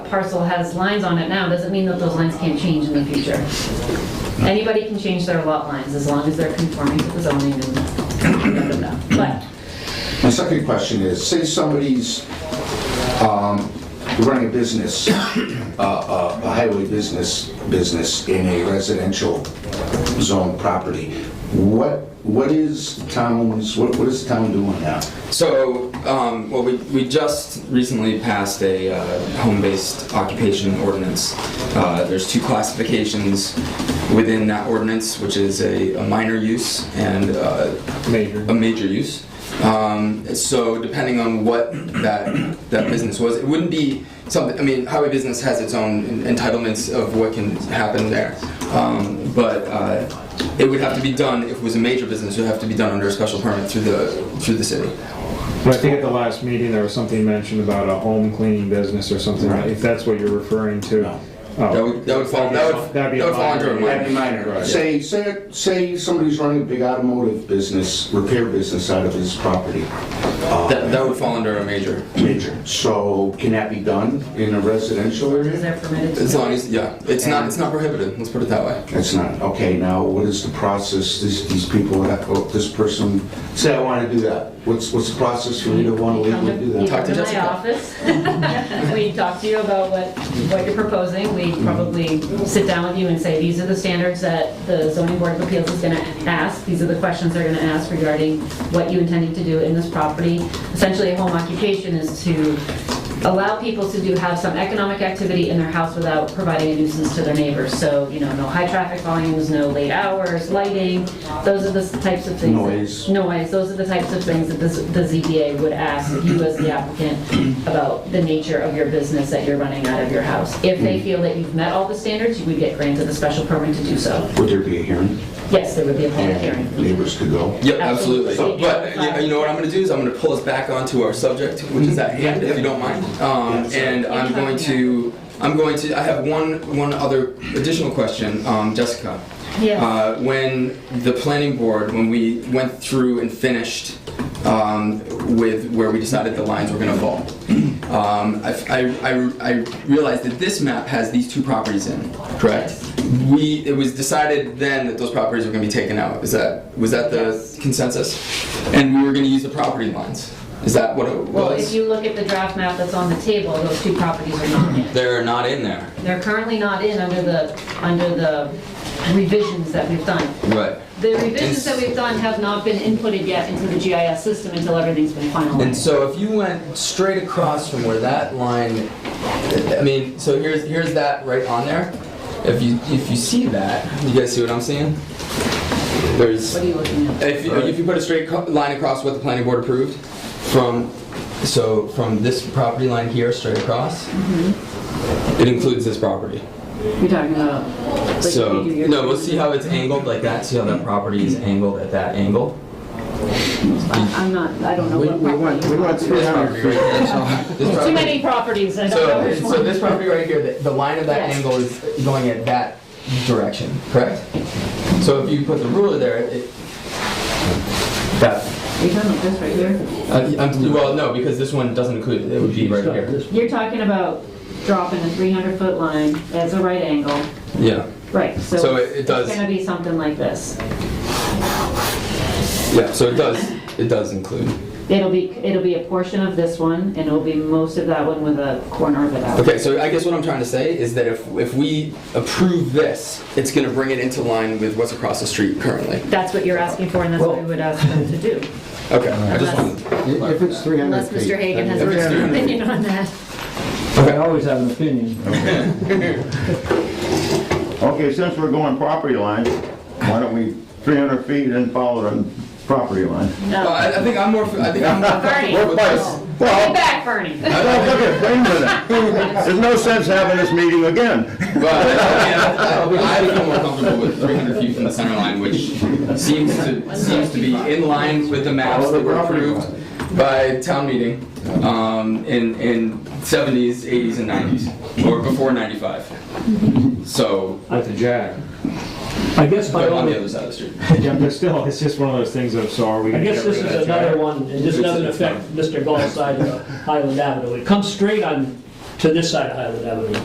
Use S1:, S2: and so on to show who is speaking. S1: parcel has lines on it now, doesn't mean that those lines can't change in the future. Anybody can change their lot lines as long as they're conforming to the zoning and blah, blah, blah. But
S2: My second question is, say somebody's um, running a business, uh, uh, a highway business, business in a residential zone property, what, what is town's, what what is town doing now?
S3: So, um, well, we, we just recently passed a uh, home-based occupation ordinance. Uh, there's two classifications within that ordinance, which is a, a minor use and uh,
S4: Major.
S3: a major use. Um, so depending on what that that business was, it wouldn't be something. I mean, highway business has its own en- entitlements of what can happen there, um, but. Uh, it would have to be done if it was a major business. It would have to be done under a special permit through the through the city.
S4: But I think at the last meeting, there was something mentioned about a home cleaning business or something,
S3: Right.
S4: if that's what you're referring to.
S2: No.
S4: Oh.
S3: That would, that would fall, that would, that
S4: That'd be a
S3: would fall under a
S4: minor.
S3: minor.
S4: Right.
S2: Say, say, say somebody's running a big automotive business, repair business out of his property,
S3: That, that would fall under a major,
S2: major. So can that be done in a residential area?
S1: is that permitted to?
S3: as long as, yeah, it's not, it's not prohibited, let's put it that way.
S2: That's not, okay, now what is the process, these, these people, have- oh, this person, say I wanna do that, what's, what's the process for me to wanna legally do
S1: You
S2: that?
S1: come
S3: Talk to
S1: to my
S3: Jessica.
S1: office. We talk to you about what, what you're proposing. We probably sit down with you and say, these are the standards that the zoning board of appeals is gonna ask. These are the questions they're gonna ask regarding what you intended to do in this property. Essentially, a home occupation is to allow people to do, have some economic activity in their house without providing a nuisance to their neighbors. So, you know, no high traffic volumes, no late hours, lighting, those are the types of things. that-
S2: Noise.
S1: noise, those are the types of things that the Z- the ZBA would ask you as the applicant about the nature of your business that you're running out of your house. If they feel that you've met all the standards, you would get granted the special permit to do so.
S2: Would there be a hearing?
S1: Yes, there would be a public hearing.
S2: Neighbors could go?
S3: Yep, absolutely.
S1: Absolutely.
S3: But, uh, you know what I'm gonna do is I'm gonna pull us back onto our subject, which is at hand, if you don't mind. Um, and I'm going to, I'm going to, I have one, one other additional question, um, Jessica.
S1: Yes.
S3: Uh, when the planning board, when we went through and finished um, with where we decided the lines were going to fall, um, I, I- I- I realized that this map has these two properties in, correct? We, it was decided then that those properties were going to be taken out. Is that, was that the consensus? And we were going to use the property lines. Is that what it
S1: Well, if
S3: was?
S1: you look at the draft map that's on the table, those two properties are not in.
S3: They're not in there.
S1: They're currently not in under the, under the revisions that we've done.
S3: Right.
S1: The revisions that we've done have not been inputted yet into the GIS system until everything's been
S3: And
S1: finalized.
S3: so if you went straight across from where that line, I mean, so here's here's that right on there. If you if you see that, you guys see what I'm seeing? There's
S1: What are you looking at?
S3: if you, if you put a straight co- line across what the planning board approved from so from this property line here straight across, it includes this property.
S1: You're talking about. like,
S3: So
S1: you- you're-
S3: no, we'll see how it's angled like that. See how that property is angled at that angle.
S1: I- I'm not, I don't know what property.
S4: we went
S3: This property right here. This
S1: There's Too
S3: property-
S1: many properties, I don't know
S3: So,
S1: which
S3: so
S1: one.
S3: this property right here, the, the line of that
S1: Yes.
S3: angle is going at that direction, correct? So if you put the ruler there, it, that,
S1: You're talking about this right here?
S3: uh, I'm- well, no, because this one doesn't include, it, it would be right here.
S1: You're talking about dropping a 300-foot line as a right angle,
S3: Yeah,
S1: right, so.
S3: So it- it does-
S1: It's gonna be something like this.
S3: yeah, so it does, it does include.
S1: It'll be, it'll be a portion of this one, and it'll be most of that one with a corner of it out.
S3: Okay, so I guess what I'm trying to say is that if, if we approve this, it's gonna bring it into line with what's across the street currently.
S1: That's what you're asking for, and that's what we would ask them to do.
S3: Okay, I just
S1: Unless-
S3: wanted.
S5: If it's 300
S1: Unless
S5: feet.
S1: Mr. Hagan has a
S3: If it's
S1: different
S3: 300.
S1: opinion on that.
S5: I always have an opinion.
S6: Okay, since we're going property line, why don't we 300 feet and follow the property line?
S3: Well, I, I think I'm more, I think I'm more comfortable with this.
S1: Get
S6: Well,
S1: back, Bernie.
S6: well, look at, wait a minute. There's no sense having this meeting again.
S3: Well, I mean, I I become more comfortable with 300 feet from the center line, which seems to, seems to be in line with the maps that were approved by town meeting um, in, in 70s, 80s, and 90s, or before 95. So,
S4: With the jack.
S7: I guess by
S3: but on
S7: all,
S3: the other side of the street.
S4: Yeah, but still, it's just one of those things of, so are we
S7: I
S4: gonna
S7: guess
S4: get
S7: this
S4: rid of that
S7: is
S4: jack?
S7: another one, and this doesn't affect Mr. Gall's side of Highland Avenue. It comes straight on to this side of Highland Avenue.